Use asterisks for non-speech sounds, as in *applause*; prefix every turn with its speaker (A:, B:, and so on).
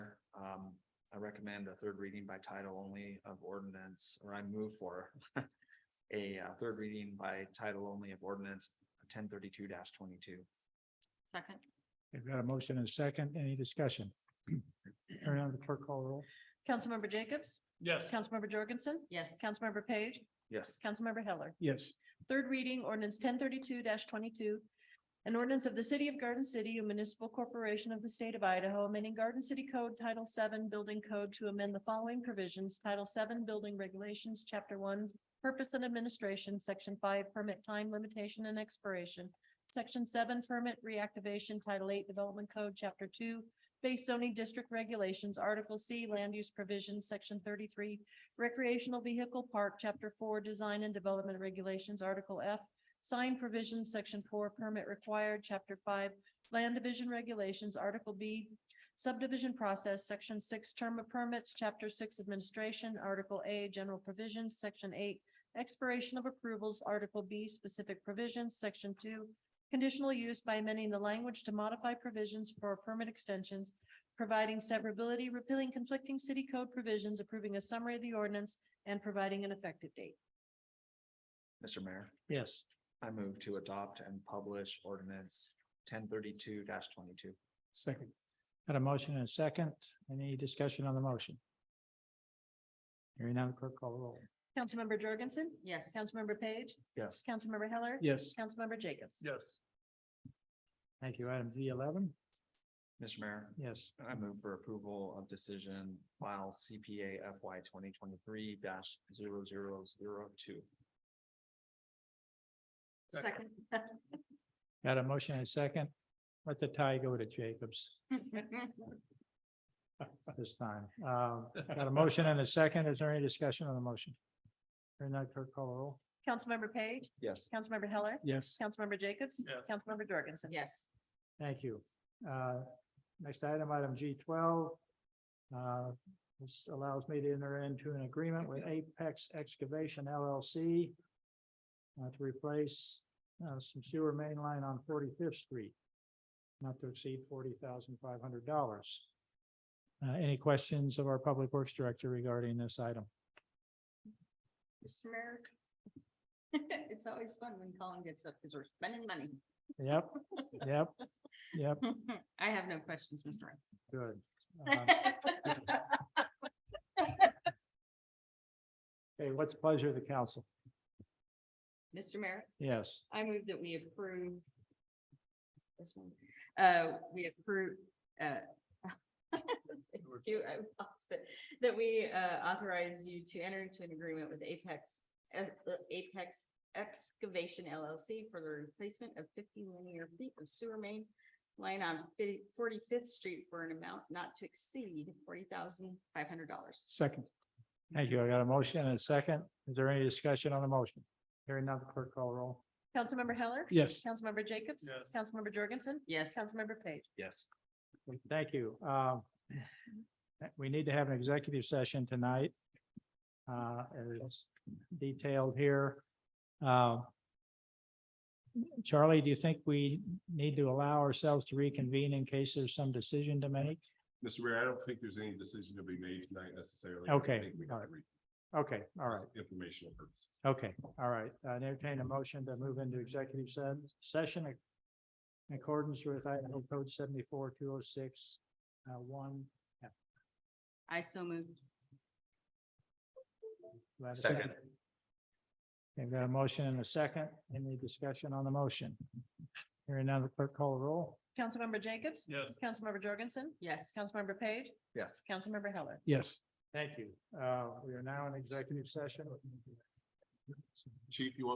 A: Um, recommend a third reading by title only of ordinance, or I move for *laughs* a uh, third reading by title only of ordinance ten thirty-two twenty-two.
B: Second.
C: We've got a motion and a second. Any discussion? Hearing none, the clerk call the roll.
D: Councilmember Jacobs?
E: Yes.
D: Councilmember Jorgensen?
B: Yes.
D: Councilmember Page?
A: Yes,
D: Councilmember Heller?
C: Yes.
D: Third reading ordinance ten thirty-two twenty-two. An ordinance of the City of Garden City, a municipal corporation of the state of Idaho, amending Garden City Code Title VII Building Code to amend the following provisions, Title VII Building Regulations, Chapter One, Purpose and Administration, Section Five, Permit Time Limitation and Expiration, Section Seven, Permit Reactivation, Title Eight Development Code, Chapter Two, Base Zoning District Regulations, Article C, Land Use Provisions, Section thirty-three, Recreational Vehicle Park, Chapter Four, Design and Development Regulations, Article F, Sign Provisions, Section Four, Permit Required, Chapter Five, Land Division Regulations, Article B, Subdivision Process, Section Six, Term of Permits, Chapter Six, Administration, Article A, General Provisions, Section Eight, Expiration of Approvals, Article B, Specific Provisions, Section Two, Conditional Use by amending the language to modify provisions for permit extensions, providing severability, repealing conflicting city code provisions, approving a summary of the ordinance, and providing an effective date.
A: Mr. Mayor,
C: Yes.
A: I move to adopt and publish ordinance ten thirty-two twenty-two.
C: Second. Got a motion and a second. Any discussion on the motion? Hearing none, the clerk call the roll.
D: Councilmember Jorgensen?
B: Yes. *laughs*
D: Councilmember Page?
A: Yes,
D: Councilmember Heller?
C: Yes.
D: Councilmember Jacobs?
E: Yes.
C: Thank you. Item D eleven.
A: Mr. Mayor,
C: Yes.
A: I move for approval of decision file CPA FY twenty twenty-three 2
B: Second.
C: Got a motion and a second. Let the tie go to Jacobs *laughs* this time. Um, got a motion and a second. Is there any discussion on the motion? Hearing none, clerk call the roll.
D: Councilmember Page?
A: Yes,
D: Councilmember Heller?
C: Yes.
D: Councilmember Jacobs?
E: Yes.
D: Councilmember Jorgensen?
B: Yes.
C: Thank you. Uh, Next item, item G twelve. Uh, This allows me to enter into an agreement with Apex Excavation LLC uh, to replace uh, some sewer main line on Forty-Fifth Street, not to exceed forty thousand five hundred dollars. Uh, Any questions of our Public Works Director regarding this item?
B: Mr. Merrick? *laughs* It's always fun when Colin gets up because we're spending money.
C: Yep, yep, yep,
B: *laughs* I have no questions, Mr. Merrick.
C: good. Uh,
B: *laughs* I
C: Okay, what's the pleasure of the council?
B: Mr. Merrick,
C: Yes.
B: I move that we approve. this one. Uh, we approve, uh. *laughs* You, I lost it. That we, uh, authorize you to enter into an agreement with Apex, uh, Apex Excavation LLC for the replacement of fifty linear feet of sewer main line on Forty-Fifth Street for an amount not to exceed forty thousand five hundred dollars.
C: Second. Thank you. I got a motion and a second. Is there any discussion on the motion? Hearing none, the clerk call the roll.
D: Councilmember Heller?
C: Yes.
D: Councilmember Jacobs?
E: Yes.
D: Councilmember Jorgensen?
B: Yes.
D: Councilmember Page?
A: yes,
C: Thank you. Um, We need to have an executive session tonight. uh, As detailed here. Uh, Charlie, do you think we need to allow ourselves to reconvene in case there's some decision to make?
F: Mr. Mayor, I don't think there's any decision to be made tonight necessarily. I
C: Okay,
F: think we
C: all
F: have to read
C: Okay, all right.
F: this Informational purposes.
C: Okay, all right. I entertain a motion to move into executive se- session in accordance with Idaho Code seventy-four, two oh six, uh, one.
B: I so moved.
C: Do I have a
A: Second.
C: Okay, I've got a motion and a second. Any discussion on the motion? Hearing none, the clerk call the roll.
D: Councilmember Jacobs?
E: Yes.
D: Councilmember Jorgensen?
B: Yes.
D: Councilmember Page?
A: yes.
D: Councilmember Heller?
C: Yes. Thank you. Uh, we are now in executive session.
F: Chief, you want